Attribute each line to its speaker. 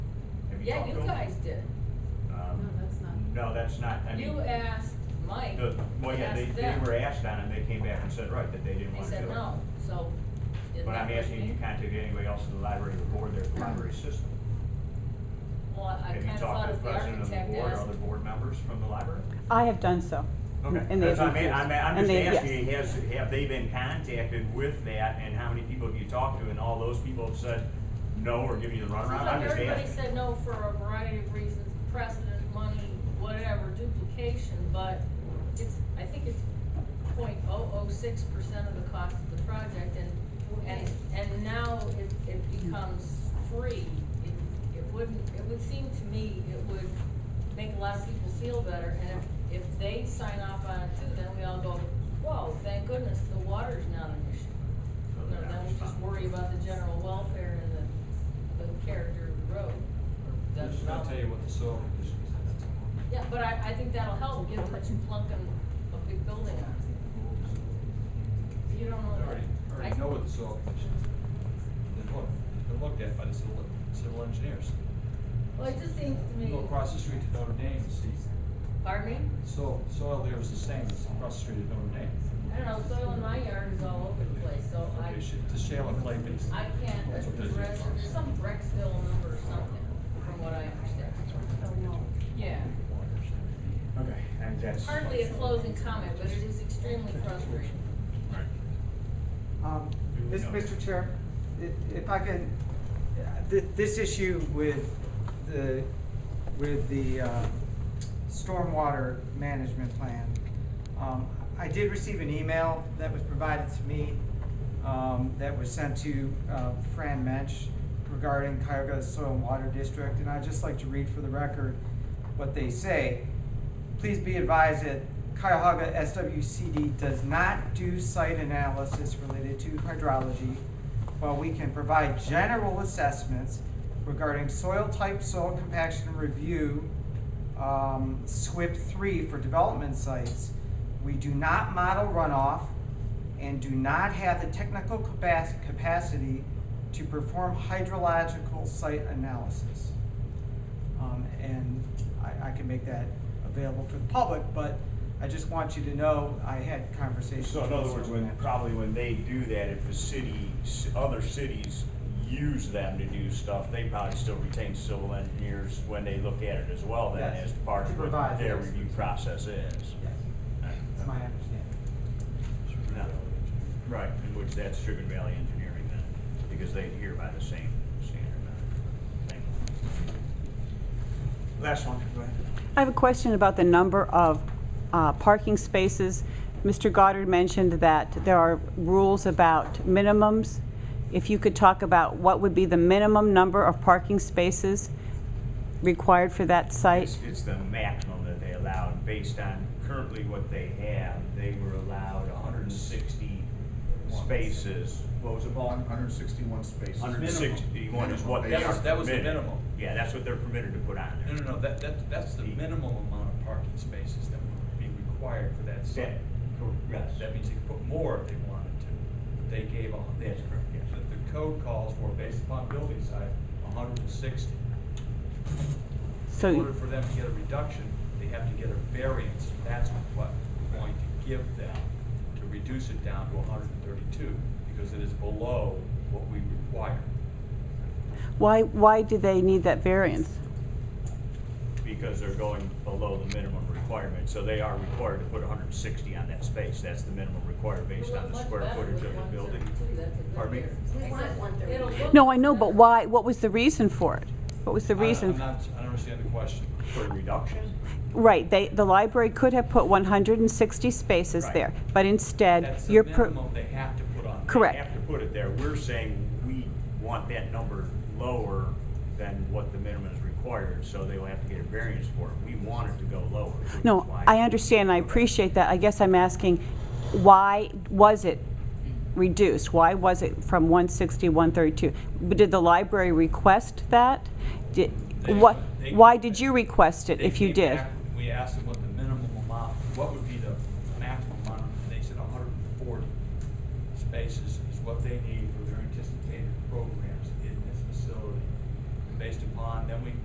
Speaker 1: you
Speaker 2: Yeah,
Speaker 1: talked
Speaker 2: you
Speaker 1: to him?
Speaker 2: guys did.
Speaker 1: Um,
Speaker 3: No, that's not-
Speaker 1: No, that's not, I mean.
Speaker 2: You asked Mike,
Speaker 1: The, well, yeah, they,
Speaker 2: asked
Speaker 1: they
Speaker 2: them.
Speaker 1: were asked on it, they came back and said, right, that they didn't
Speaker 2: They
Speaker 1: wanna do it.
Speaker 2: said no, so. it
Speaker 1: But I'm
Speaker 2: never
Speaker 1: asking, you
Speaker 2: came.
Speaker 1: contacted anybody else in the library or board there, at the library system?
Speaker 2: Well, I
Speaker 1: Have you
Speaker 2: kinda
Speaker 1: talked
Speaker 2: thought
Speaker 1: to the
Speaker 2: if the
Speaker 1: president of the
Speaker 2: architect
Speaker 1: board or
Speaker 2: asked,
Speaker 1: other board members from the library?
Speaker 4: I have done so.
Speaker 1: Okay,
Speaker 4: and they
Speaker 1: that's,
Speaker 4: have
Speaker 1: I mean, I'm,
Speaker 4: refused.
Speaker 1: I'm
Speaker 4: And
Speaker 1: just
Speaker 4: they-
Speaker 1: asking,
Speaker 4: yes.
Speaker 1: has, have they been contacted with that, and how many people have you talked to, and all those people have said no or given you the
Speaker 2: seems
Speaker 1: runaround?
Speaker 2: like
Speaker 1: I'm just
Speaker 2: everybody
Speaker 1: asking.
Speaker 2: said no for a variety of reasons, precedent, money, whatever, duplication, but it's, I think it's point oh oh six percent of the cost of the project, and, and, and now it, it becomes free. It- It wouldn't, it would seem to me it would make a lot of people feel better, and if, if they sign off on it too, then we all go, whoa, thank goodness, the water's not an
Speaker 1: So
Speaker 2: issue. No,
Speaker 1: they're not
Speaker 2: then we just
Speaker 1: responding.
Speaker 2: worry about the general welfare and the, the character of the road. or
Speaker 5: They're
Speaker 2: the
Speaker 5: just gonna tell you what the soil condition is at that time.
Speaker 2: Yeah, but I, I think that'll help, given that you're plunking a big building on it. You don't know
Speaker 5: I
Speaker 2: that.
Speaker 5: already, I
Speaker 2: I-
Speaker 5: already know what the soil condition is. They've looked, it's been looked at by the civil, civil engineers.
Speaker 2: Well, it just seems to me,
Speaker 5: Go across the street to Notre Dame, and see,
Speaker 2: pardon me,
Speaker 5: soil, soil there is the same as across the street at Notre Dame.
Speaker 2: I don't know, soil in my yard is all over the place, so I,
Speaker 5: Okay, sh- It's a shale and clay base.
Speaker 2: I can't
Speaker 5: That's what
Speaker 2: address,
Speaker 5: this is.
Speaker 2: there's some Brexville number or something, from what I understand.
Speaker 3: Oh, no.
Speaker 2: Yeah,
Speaker 1: Okay, I think that's.
Speaker 2: hardly a closing comment, but it is extremely frustrating.
Speaker 6: Um, Mis- Mr. Chair, i- if I can, th- this issue with the, with the uh, stormwater management plan, um, I did receive an email that was provided to me um, that was sent to uh, Fran Mensch regarding Cuyahoga Soil and Water District, and I'd just like to read for the record what they say. Please be advised that Cuyahoga SWCD does not do site analysis related to hydrology, while we can provide general assessments regarding soil type, soil compaction review, um, SWIP three for development sites. We do not model runoff and do not have the technical capac- capacity to perform hydrological site analysis. Um, and I, I can make that available for the public, but I just want you to know, I had conversations.
Speaker 1: So in other
Speaker 6: with
Speaker 1: words,
Speaker 6: someone
Speaker 1: when,
Speaker 6: that-
Speaker 1: probably when they do that, if the city, other cities use them to do stuff, they probably still retain civil engineers when they look at it as well, then
Speaker 6: Yes.
Speaker 1: as part
Speaker 6: To
Speaker 1: of what
Speaker 6: provide
Speaker 1: their
Speaker 6: the
Speaker 1: review process is.
Speaker 6: Yes, that's my understanding.
Speaker 1: No. Right, in which that's Sugar Valley Engineering then, because they adhere by the same standard. uh, thing. Last one, go ahead.
Speaker 4: I have a question about the number of uh, parking spaces. Mr. Goddard mentioned that there are rules about minimums. If you could talk about what would be the minimum number of parking spaces required for that site?
Speaker 1: It's, it's the maximum that they allow, and based on currently what they have, they were allowed hundred and sixty spaces. What was it, Paul?
Speaker 7: Hundred and sixty-one spaces.
Speaker 1: Hundred and sixty-one is what they
Speaker 5: That
Speaker 1: are
Speaker 5: was- that was the Mm-hmm.
Speaker 1: permitted.
Speaker 5: minimum.
Speaker 1: Yeah, that's what they're permitted to put on
Speaker 5: No,
Speaker 1: there.
Speaker 5: no, no, that, that, that's the minimum amount of parking spaces that would be required for that site.
Speaker 1: Yes.
Speaker 5: That means they could put more if they wanted to, but they gave on.
Speaker 1: That's correct, yes.
Speaker 5: But the code calls for, based upon building size, hundred and sixty. In order
Speaker 4: So,
Speaker 5: for them to get a reduction, they have to get a variance, and that's what we're going to give them to reduce it down to hundred and thirty-two, because it is below what we require.
Speaker 4: why, why do they need that variance?
Speaker 1: Because they're going below the minimum requirement, so they are required to put hundred and sixty on that space, that's the minimum required based
Speaker 2: It
Speaker 1: on
Speaker 2: looked
Speaker 1: the
Speaker 2: much
Speaker 1: square
Speaker 2: better
Speaker 1: footage
Speaker 2: with
Speaker 1: of the building.
Speaker 2: 132, that's a good
Speaker 1: Pardon me?
Speaker 2: year.
Speaker 3: We want
Speaker 2: Except
Speaker 3: 132.
Speaker 2: it'll look
Speaker 4: No, I know, but
Speaker 2: better.
Speaker 4: why, what was the reason for it? What was the
Speaker 5: I,
Speaker 4: reason?
Speaker 5: I'm not, I don't understand the question.
Speaker 1: For a reduction?
Speaker 4: Right, they, the library could have put 160 spaces
Speaker 1: Right.
Speaker 4: there, but instead,
Speaker 5: That's the
Speaker 4: you're... per-
Speaker 5: minimum they have to put on.
Speaker 4: Correct.
Speaker 1: have to put it there, we're saying we want that number lower than what the minimum is required, so they will have to get a variance for it. We want it to go lower. which is
Speaker 4: No,
Speaker 1: why-
Speaker 4: I understand, and I appreciate that. I guess I'm asking, why was it reduced? Why was it from 160, 132? But Did the library request that? Did,
Speaker 5: They-
Speaker 4: what,
Speaker 5: they-
Speaker 4: why did you request it,
Speaker 5: They
Speaker 4: if you
Speaker 5: came
Speaker 4: did?
Speaker 5: back, We asked them what the minimum amount, what would be the maximum amount, and they said hundred and forty spaces is what they need for their anticipated programs in this facility. And Based upon, then we